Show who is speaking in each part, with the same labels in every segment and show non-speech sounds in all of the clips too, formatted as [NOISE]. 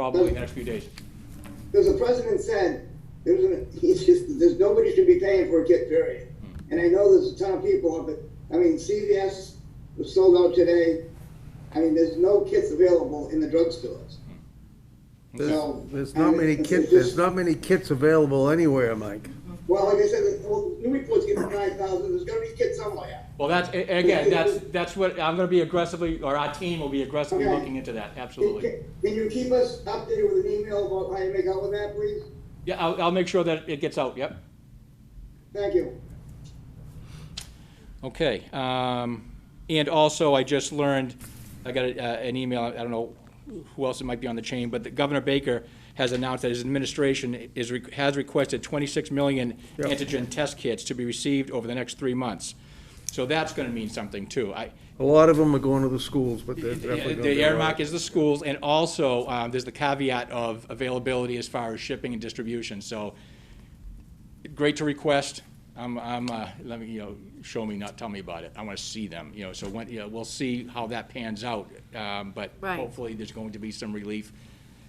Speaker 1: probably in the next few days.
Speaker 2: Because the president said, there's, an- [LAUGHS] he's just, there's, nobody should be paying for a kit, period. And I know there's a ton of people up at, I mean, CVS was sold out today. I mean, there's no kits available in the drugstores.
Speaker 3: There's
Speaker 2: So.
Speaker 3: there's
Speaker 2: I
Speaker 3: not
Speaker 2: mean,
Speaker 3: many
Speaker 2: it's
Speaker 3: kits,
Speaker 2: just-
Speaker 3: there's not many kits available anywhere, Mike.
Speaker 2: Well, like I said, well, Newburyport's getting nine thousand, there's gonna be kits somewhere.
Speaker 1: Well, that's, a- again, that's, that's what, I'm gonna be aggressively, or our team will be aggressively
Speaker 2: Okay.
Speaker 1: looking into that,
Speaker 2: Can
Speaker 1: absolutely.
Speaker 2: can- can you keep us updated with an email about how you make out with that, please?
Speaker 1: Yeah, I'll, I'll make sure that it gets out, yep.
Speaker 2: Thank you.
Speaker 1: Okay, um, and also, I just learned, I got a, uh, an email, I don't know who else it might be on the chain, but that Governor Baker has announced that his administration is, re- has requested twenty-six million
Speaker 3: Yep.
Speaker 1: antigen test kits to be received over the next three months. So that's gonna mean something too. I,
Speaker 3: A lot of them are going to the schools, but they're definitely going to.
Speaker 1: The earmark is the schools, and also, um, there's the caveat of availability as far as shipping and distribution, so great to request. I'm, I'm, uh, let me, you know, show me, not tell me about it. I wanna see them, you know, so when, you know, we'll see how that pans out. Um, but
Speaker 4: Right.
Speaker 1: hopefully, there's going to be some relief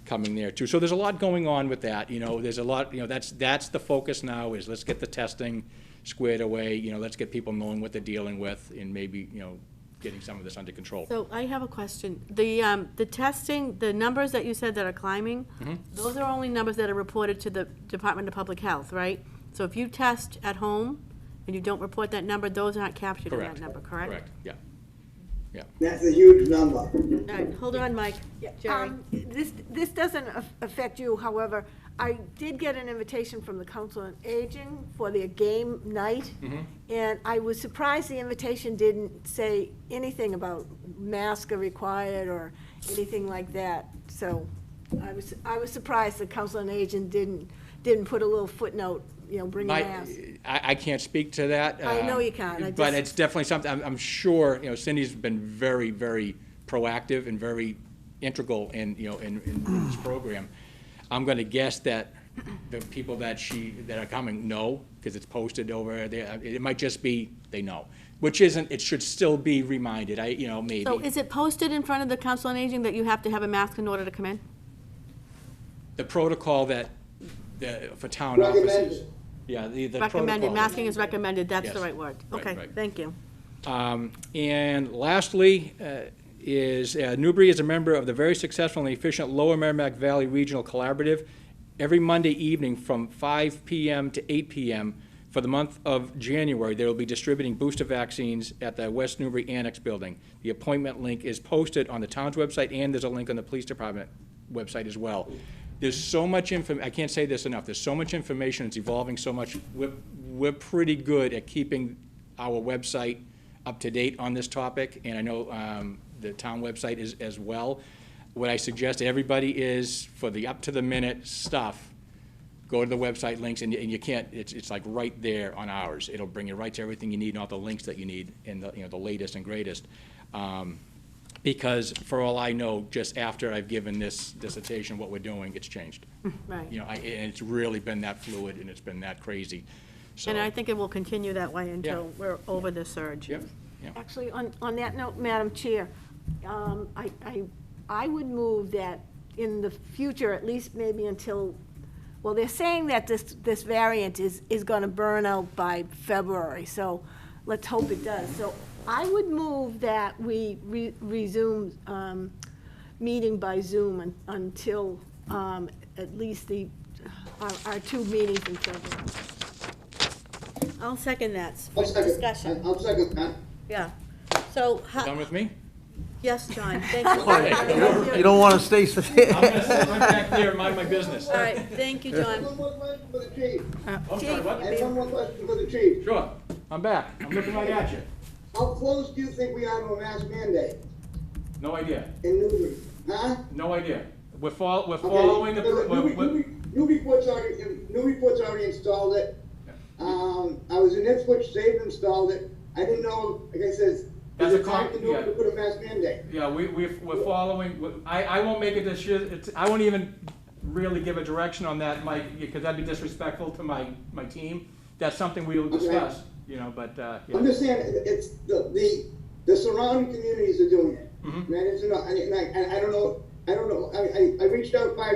Speaker 1: coming there too. So there's a lot going on with that, you know, there's a lot, you know, that's, that's the focus now is let's get the testing squared away, you know, let's get people knowing what they're dealing with and maybe, you know, getting some of this under control.
Speaker 4: So I have a question. The, um, the testing, the numbers that you said that are climbing,
Speaker 1: Mm-hmm.
Speaker 4: those are only numbers that are reported to the Department of Public Health, right? So if you test at home and you don't report that number, those aren't captured in that number, correct?
Speaker 1: Correct, yeah.
Speaker 2: That's a huge number.
Speaker 4: All right, hold on, Mike. Jerry.
Speaker 5: Um, This, this doesn't af- affect you, however, I did get an invitation from the Council on Aging for their game night. And I was surprised the invitation didn't say anything about masks are required or anything like that. So I was, I was surprised the Council on Aging didn't, didn't put a little footnote, you know, bring a
Speaker 1: My-
Speaker 5: mask.
Speaker 1: I, I can't speak to that.
Speaker 5: I know
Speaker 1: um,
Speaker 5: you can't, I
Speaker 1: But
Speaker 5: just-
Speaker 1: it's definitely something, I'm, I'm sure, you know, Cindy's been very, very proactive and very integral in, you know, in, in this program. I'm gonna guess that the people that she, that are coming know, because it's posted over there. Uh, It might just be, they know, which isn't, it should still be reminded, I, you know, maybe.
Speaker 4: So is it posted in front of the Council on Aging that you have to have a mask in order to come in?
Speaker 1: The protocol that, the, for town offices.
Speaker 2: Recommended.
Speaker 1: Yeah, the, the protocol.
Speaker 4: Recommended, masking is recommended, that's the
Speaker 1: Yes.
Speaker 4: right word.
Speaker 1: Right,
Speaker 4: Okay,
Speaker 1: right.
Speaker 4: thank you.
Speaker 1: Um, And lastly, uh, is, uh, Newbury is a member of the very successful and efficient Lower Merrimack Valley Regional Collaborative every Monday evening from 5 PM to 8 PM. For the month of January, they will be distributing booster vaccines at the West Newbury Annex Building. The appointment link is posted on the town's website, and there's a link on the police department website as well. There's so much inform, I can't say this enough, there's so much information, it's evolving so much. We're, we're pretty good at keeping our website up to date on this topic, and I know um, the town website is as well. What I suggest to everybody is, for the up-to-the-minute stuff, go to the website links, and you- and you can't, it's, it's like right there on ours. It'll bring you right to everything you need, and all the links that you need, and the, you know, the latest and greatest. Um, Because for all I know, just after I've given this dissertation, what we're doing, it's changed. You
Speaker 4: [LAUGHS] Right.
Speaker 1: know, I, and it's really been that fluid, and it's been that crazy, so.
Speaker 4: And I think it will continue that way until
Speaker 1: Yeah.
Speaker 4: we're over the surge.
Speaker 1: Yep, yep.
Speaker 4: Uh,
Speaker 5: Actually, on, on that note, Madam Chair, um, I, I, I would move that in the future, at least maybe until, well, they're saying that this, this variant is, is gonna burn out by February, so let's hope it does. So I would move that we re- resume, um, meeting by Zoom un- until, um, at least the, our, our two meetings in February.
Speaker 4: I'll second that for
Speaker 2: I'll second-
Speaker 4: discussion.
Speaker 2: I'll second that.
Speaker 4: Yeah. So, how-
Speaker 1: Done with me?
Speaker 4: yes,
Speaker 3: [LAUGHS]
Speaker 4: John, thank you. All
Speaker 3: You don't want to stay, s-
Speaker 1: I'm gonna sit right back there and mind my business.
Speaker 4: right, thank you, John.
Speaker 2: One more question for the chief.
Speaker 1: I'm sorry,
Speaker 2: I
Speaker 1: what?
Speaker 2: have one more question for the chief.
Speaker 1: Sure, I'm back. I'm looking right at you.
Speaker 2: How close do you think we are to a mask mandate
Speaker 1: No idea,
Speaker 2: in Newbury? Huh?
Speaker 1: no idea. We're fol, we're
Speaker 2: Okay,
Speaker 1: following the,
Speaker 2: New-
Speaker 1: we're-
Speaker 2: Newbury-
Speaker 1: we're-
Speaker 2: Newbury- Newburyport's already, Newburyport's already installed it. Um, I was in Ipswich, they've installed it. I didn't know, like I said, is
Speaker 1: That's a
Speaker 2: it time
Speaker 1: con-
Speaker 2: to Newbury
Speaker 1: yeah.
Speaker 2: to put a mask mandate?
Speaker 1: yeah, we, we're, we're following, we- I, I won't make it this year, it's, I won't even really give a direction on that, Mike, because that'd be disrespectful to my, my team. That's something we'll discuss, you know, but, uh,
Speaker 2: I'm
Speaker 1: yeah.
Speaker 2: just saying, it- it's,
Speaker 1: Mm-hmm.
Speaker 2: the, the, the surrounding communities are doing it. And I didn't know, and I, and I- I don't know, I don't know, I, I, I reached out five